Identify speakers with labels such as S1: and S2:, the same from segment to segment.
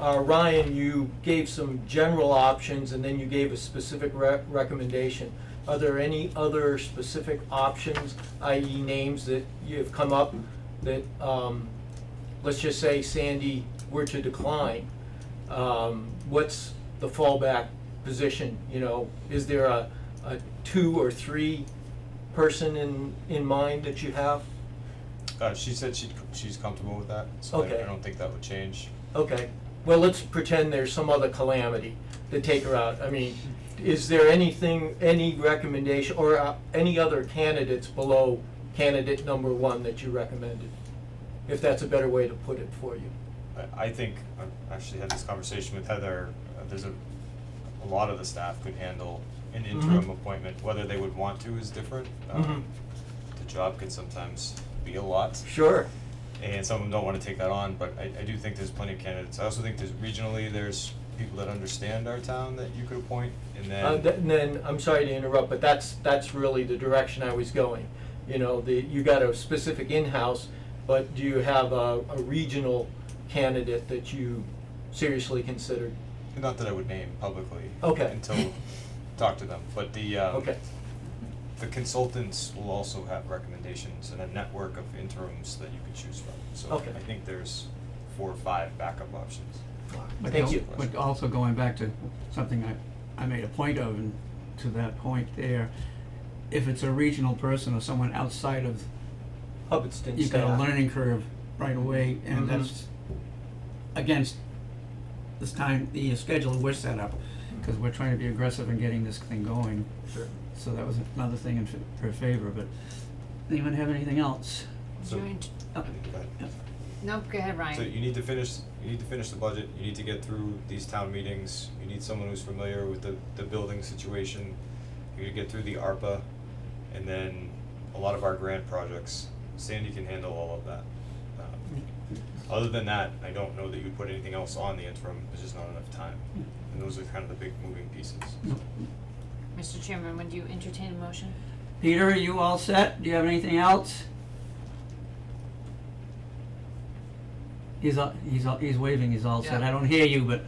S1: Uh, Ryan, you gave some general options and then you gave a specific re- recommendation. Are there any other specific options, i.e. names that you've come up that, um, let's just say Sandy were to decline? um, what's the fallback position, you know? Is there a, a two or three person in, in mind that you have?
S2: Uh, she said she, she's comfortable with that, so I-
S1: Okay.
S2: I don't think that would change.
S1: Okay, well, let's pretend there's some other calamity to take her out. I mean, is there anything, any recommendation, or uh, any other candidates below candidate number one that you recommended? If that's a better way to put it for you.
S2: I, I think, I actually had this conversation with Heather, uh, there's a, a lot of the staff could handle an interim
S1: Mhm.
S2: appointment, whether they would want to is different.
S1: Mhm.
S2: Um, The job can sometimes be a lot.
S1: Sure.
S2: and some of them don't wanna take that on, but I, I do think there's plenty of candidates. I also think there's regionally, there's people that understand our town that you could appoint, and
S1: Uh, th-
S2: then,
S1: And then, I'm sorry to interrupt, but that's, that's really the direction I was going. You know, the, you got a specific in-house, but do you have a, a regional candidate that you seriously considered?
S2: not that I would name publicly.
S1: Okay.
S2: Until, talk to them, but the, um,
S1: Okay,
S2: the consultants will also have recommendations and a network of interims that you could choose from. So
S1: Okay.
S2: I think there's four or five backup options.
S3: But
S1: Thank
S3: al-
S1: you.
S3: But also going back to something I, I made a point of, and to that point there, if it's a regional person or someone outside of,
S1: Hubbardston
S3: you've got a
S1: staff.
S3: learning curve right away,
S1: Mhm.
S3: and that's against this time, the schedule we're set up, because we're trying to be aggressive in getting this thing going,
S1: Sure.
S3: so that was another thing in f- her favor, but anyone have anything else?
S2: So-
S4: Joint-
S3: Oh,
S2: Go ahead.
S3: yeah.
S4: No, go ahead, Ryan.
S2: So you need to finish, you need to finish the budget, you need to get through these town meetings, you need someone who's familiar with the, the building situation. You need to get through the ARPA and then a lot of our grant projects. Sandy can handle all of that. Um, Other than that, I don't know that you'd put anything else on the interim, there's just not enough time. And those are kind of the big moving pieces.
S4: Mr. Chairman, would you entertain a motion?
S3: Peter, are you all set? Do you have anything else? He's, all- he's, all- he's waving, he's all set.
S5: Yeah.
S3: I don't hear you, but,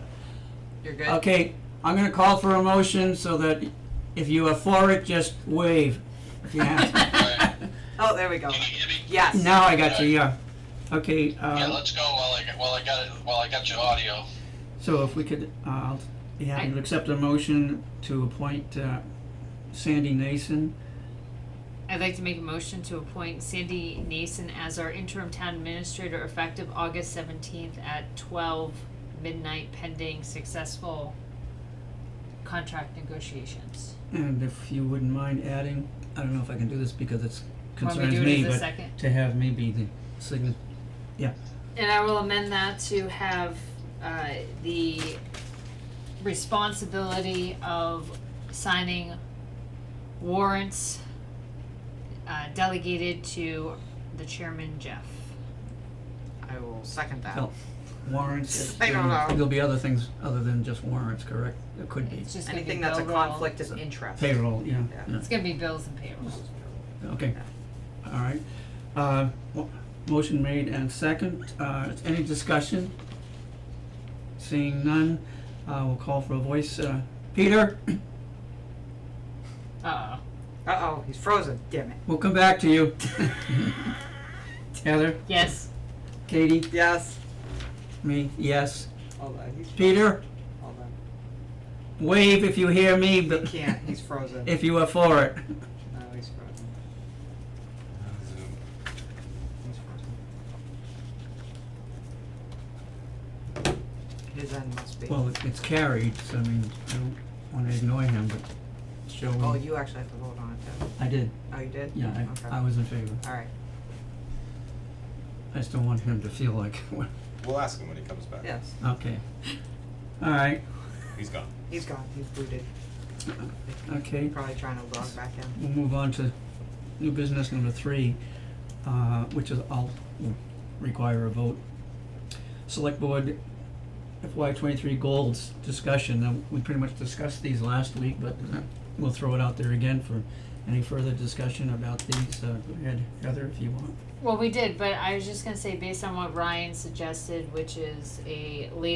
S5: You're good?
S3: okay, I'm gonna call for a motion so that if you are for it, just wave. if you have to.
S5: Oh, there we go.
S6: Can you hear me?
S5: Yes.
S3: Now I got you, yeah. Okay,
S6: Yeah,
S3: uh,
S6: let's go while I, while I got it, while I got your audio.
S3: so if we could, uh, I'll be happy to accept a motion to appoint uh, Sandy Nason.
S4: I'd like to make a motion to appoint Sandy Nason as our interim town administrator effective August seventeenth at twelve midnight pending successful contract negotiations.
S3: And if you wouldn't mind adding, I don't know if I can do this because it's
S4: Want me
S3: concerns
S4: to do it
S3: me,
S4: as a
S3: but
S4: second?
S3: to have me be the sign, yeah,
S4: And I will amend that to have, uh, the responsibility of signing warrants uh, delegated to the chairman Jeff.
S5: I will second that.
S3: no, warrants.
S5: I don't know.
S3: There'll be other things other than just warrants, correct? There could be
S4: It's just gonna be
S5: Anything that's a
S4: bill roll.
S5: conflict of interest.
S3: payroll, yeah,
S5: Yeah.
S3: yeah,
S4: It's gonna be bills and payroll.
S3: okay, all right. Uh, mo- motion made and second, uh, any discussion? Seeing none, uh, we'll call for a voice, uh, Peter,
S4: Uh-oh.
S5: Uh-oh, he's frozen, damn it.
S3: we'll come back to you. Heather,
S4: Yes.
S3: Katie,
S5: Yes.
S3: me, yes.
S5: Hold on, he's,
S3: Peter,
S5: hold on.
S3: wave if you hear me, but
S5: Can't, he's frozen.
S3: if you are for it.
S5: No, he's frozen.
S2: Zoom.
S5: He's frozen. His end must be.
S3: Well, it- it's carried, so I mean, I don't wanna ignore him, but shall
S5: Oh,
S3: we?
S5: you actually have to vote on it too.
S3: I did,
S5: Oh, you did?
S3: yeah,
S5: Okay.
S3: I, I was in favor.
S5: All right,
S3: I just don't want him to feel like, what-
S2: We'll ask him when he comes back.
S5: yes,
S3: okay. All right,
S2: He's gone.
S5: he's gone, he's booted.
S3: okay,
S5: Probably trying to log back in.
S3: we'll move on to new business number three, uh, which is, I'll require a vote. Select Board FY twenty-three goals discussion, now, we pretty much discussed these last week, but uh, we'll throw it out there again for any further discussion about these, uh, go ahead, Heather, if you want.
S4: Well, we did, but I was just gonna say, based on what Ryan suggested, which is a later